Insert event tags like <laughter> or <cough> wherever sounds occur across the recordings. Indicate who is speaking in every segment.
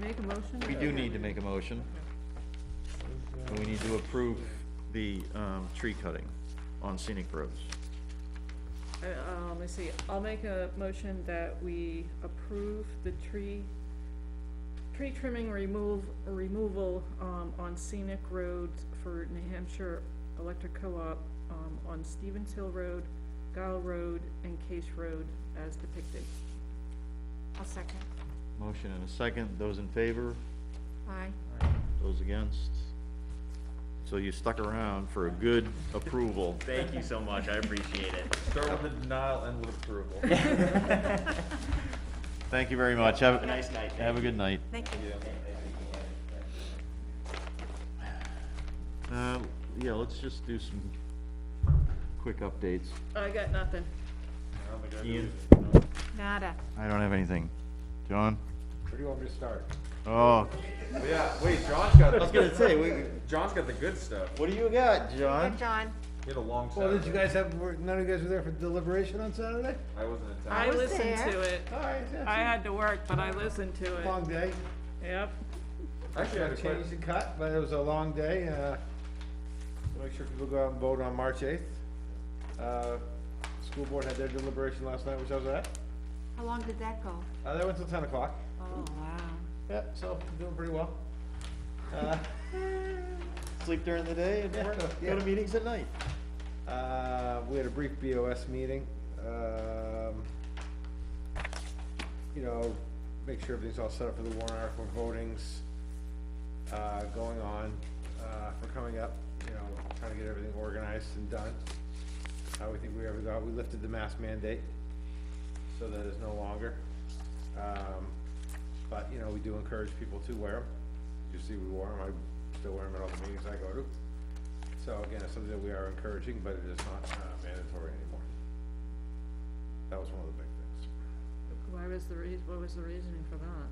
Speaker 1: make a motion?
Speaker 2: We do need to make a motion. And we need to approve the, um, tree cutting on scenic roads.
Speaker 1: Uh, uh, let me see, I'll make a motion that we approve the tree, tree trimming remove, removal, um, on scenic roads for New Hampshire Electric Co-op, um, on Stevens Hill Road, Gile Road, and Case Road as depicted.
Speaker 3: I'll second.
Speaker 2: Motion and a second, those in favor,
Speaker 3: Aye.
Speaker 2: those against? So you stuck around for a good approval.
Speaker 4: Thank you so much, I appreciate it.
Speaker 5: Start with a denial, end with approval.
Speaker 2: Thank you very much, have,
Speaker 4: Have a nice night.
Speaker 2: have a good night.
Speaker 3: Thank you.
Speaker 2: Uh, yeah, let's just do some quick updates.
Speaker 1: I got nothing.
Speaker 2: Ian?
Speaker 3: Nada.
Speaker 2: I don't have anything. John?
Speaker 5: Where do you want me to start?
Speaker 2: Oh.
Speaker 5: Yeah, wait, John's
Speaker 6: <laughs>
Speaker 5: got,
Speaker 2: gonna say, we,
Speaker 5: John's got the good stuff.
Speaker 2: what do you got,
Speaker 3: Good,
Speaker 2: John?
Speaker 3: John.
Speaker 5: He had a long
Speaker 6: Well, did
Speaker 5: Saturday.
Speaker 6: you guys have, were- none of you guys were there for deliberation on Saturday?
Speaker 5: I wasn't in town.
Speaker 1: I
Speaker 3: was
Speaker 1: listened
Speaker 3: there.
Speaker 1: to it.
Speaker 6: All right,
Speaker 1: I
Speaker 6: yeah,
Speaker 1: had to work, but I listened to
Speaker 6: it's a
Speaker 1: it.
Speaker 6: long day.
Speaker 1: Yep.
Speaker 5: Actually, I had a quick,
Speaker 6: Changed and cut, but it was a long day. uh, Make sure people go out and vote on March 8th. Uh, School board had their deliberation last night, which I was at.
Speaker 3: How long did that go?
Speaker 6: Uh, They went till 10 o'clock.
Speaker 3: Oh, wow.
Speaker 6: Yeah, so doing pretty well. Uh,
Speaker 2: Sleep during the day and work, go to meetings at night.
Speaker 6: Uh, we had a brief BOS meeting, um, you know, make sure everything's all set up for the warrant article votings, uh, going on, uh, for coming up, you know, trying to get everything organized and done. How we think we ever got, we lifted the mask mandate, so that is no longer. Um, but, you know, we do encourage people to wear them. You see, we wore them, I still wear them at all the meetings I go to. So again, it's something that we are encouraging, but it is not uh, mandatory anymore. That was one of the big things.
Speaker 1: Why was the reas, what was the reasoning for that?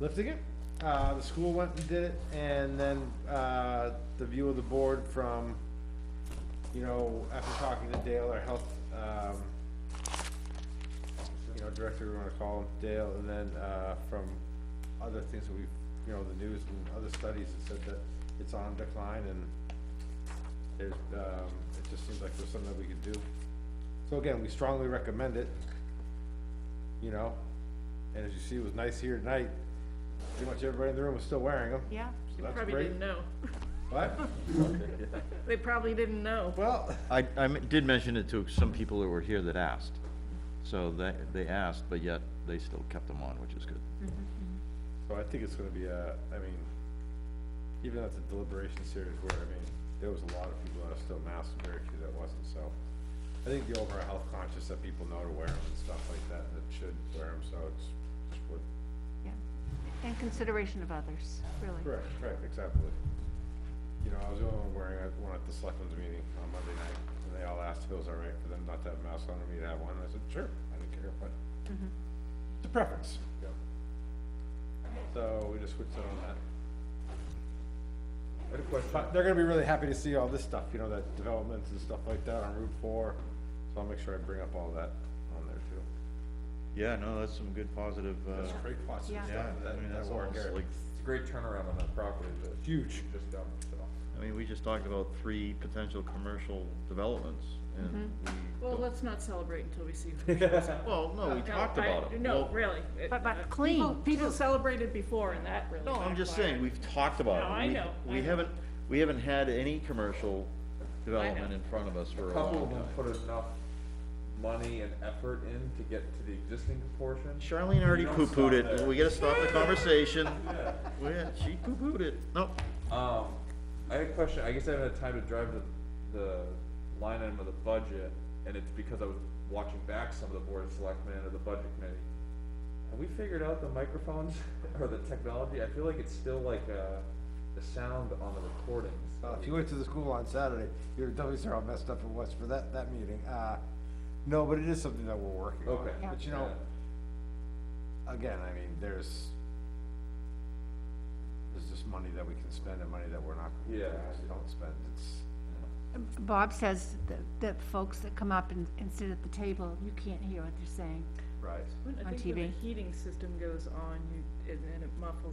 Speaker 6: Lifting it, uh, the school went and did it, and then, uh, the view of the board from, you know, after talking to Dale, our health, um, you know, director, we wanna call him, Dale, and then, uh, from other things that we've, you know, the news and other studies that said that it's on decline and there's, um, it just seems like there's something that we could do. So again, we strongly recommend it, you know, and as you see, it was nice here tonight, pretty much everybody in the room was still wearing them,
Speaker 3: Yeah.
Speaker 6: so
Speaker 1: They
Speaker 6: that's
Speaker 1: probably
Speaker 6: great.
Speaker 1: didn't know.
Speaker 6: What?
Speaker 1: They probably didn't know.
Speaker 6: Well,
Speaker 2: I, I m- did mention it to some people that were here that asked. So they, they asked, but yet they still kept them on, which is good.
Speaker 6: so I think it's gonna be a, I mean, even at the deliberation series where, I mean, there was a lot of people that are still masked, and very few that wasn't, so. I think the overall health conscious that people know to wear them and stuff like that, that should wear them, so it's, it's worth.
Speaker 3: Yeah. And consideration of others, really.
Speaker 6: Correct, right, exactly. You know, I was the only one wearing it, one at the selectmen's meeting on Monday night, and they all asked if it was all right for them not to have masks on, and me to have one, and I said, sure, I didn't care, but it's a preference. So we just switched it on that. But of course, but they're gonna be really happy to see all this stuff, you know, that developments and stuff like that on Route Four, so I'll make sure I bring up all that on there too.
Speaker 2: Yeah, no, that's some good positive, uh,
Speaker 6: That's great positive
Speaker 3: Yeah.
Speaker 6: stuff,
Speaker 2: I mean,
Speaker 6: that,
Speaker 2: that's
Speaker 6: that work
Speaker 2: almost
Speaker 6: area.
Speaker 2: like,
Speaker 5: it's a great turnaround on that property, but
Speaker 6: Huge.
Speaker 5: just done, so.
Speaker 2: I mean, we just talked about three potential commercial developments and we,
Speaker 1: Well, let's not celebrate until we see.
Speaker 2: <laughs>
Speaker 1: who shows up.
Speaker 2: well, no, we
Speaker 1: Mm-hmm. No,
Speaker 2: talked
Speaker 1: I-
Speaker 2: about them.
Speaker 1: No,
Speaker 2: Well,
Speaker 1: really. It-
Speaker 3: But,
Speaker 1: uh,
Speaker 3: but
Speaker 1: People,
Speaker 3: clean.
Speaker 1: people celebrated before and that really.
Speaker 2: No, I'm just saying,
Speaker 1: backfired.
Speaker 2: we've talked about it.
Speaker 1: No, I
Speaker 2: We-
Speaker 1: know, I
Speaker 2: We
Speaker 1: know.
Speaker 2: haven't, we haven't had any commercial development in front of us for
Speaker 5: A
Speaker 2: a
Speaker 5: couple of
Speaker 2: long
Speaker 5: them
Speaker 2: time.
Speaker 5: put enough money and effort in to get to the existing portion.
Speaker 2: Charlene already
Speaker 5: You don't stop
Speaker 2: poo-pooed it,
Speaker 5: there.
Speaker 2: we gotta stop the
Speaker 5: <laughs>
Speaker 2: conversation. Yeah, she poo-pooed it. No,
Speaker 5: Um, I had a question, I guess I haven't had time to drive the, the line item of the budget, and it's because I was watching back some of the board of selectmen or the budget committee. Have we figured out the microphones <laughs> or the technology? I feel like it's still like, uh, the sound on the recordings.
Speaker 6: Well, Uh, if you went to the school on Saturday, your dummies are all messed up and what's for that, that meeting. Uh, no, but it is something that we're working on.
Speaker 5: Okay.
Speaker 6: But you know, again, I mean, there's, there's just money that we can spend and money that we're not, we
Speaker 5: Yeah.
Speaker 6: don't spend. It's,
Speaker 3: Bob says that, that folks that come up and, and sit at the table, you can't hear what they're saying.
Speaker 1: I
Speaker 6: right.
Speaker 3: on
Speaker 1: think when the
Speaker 3: TV.
Speaker 1: heating system goes on, you, and then it muffles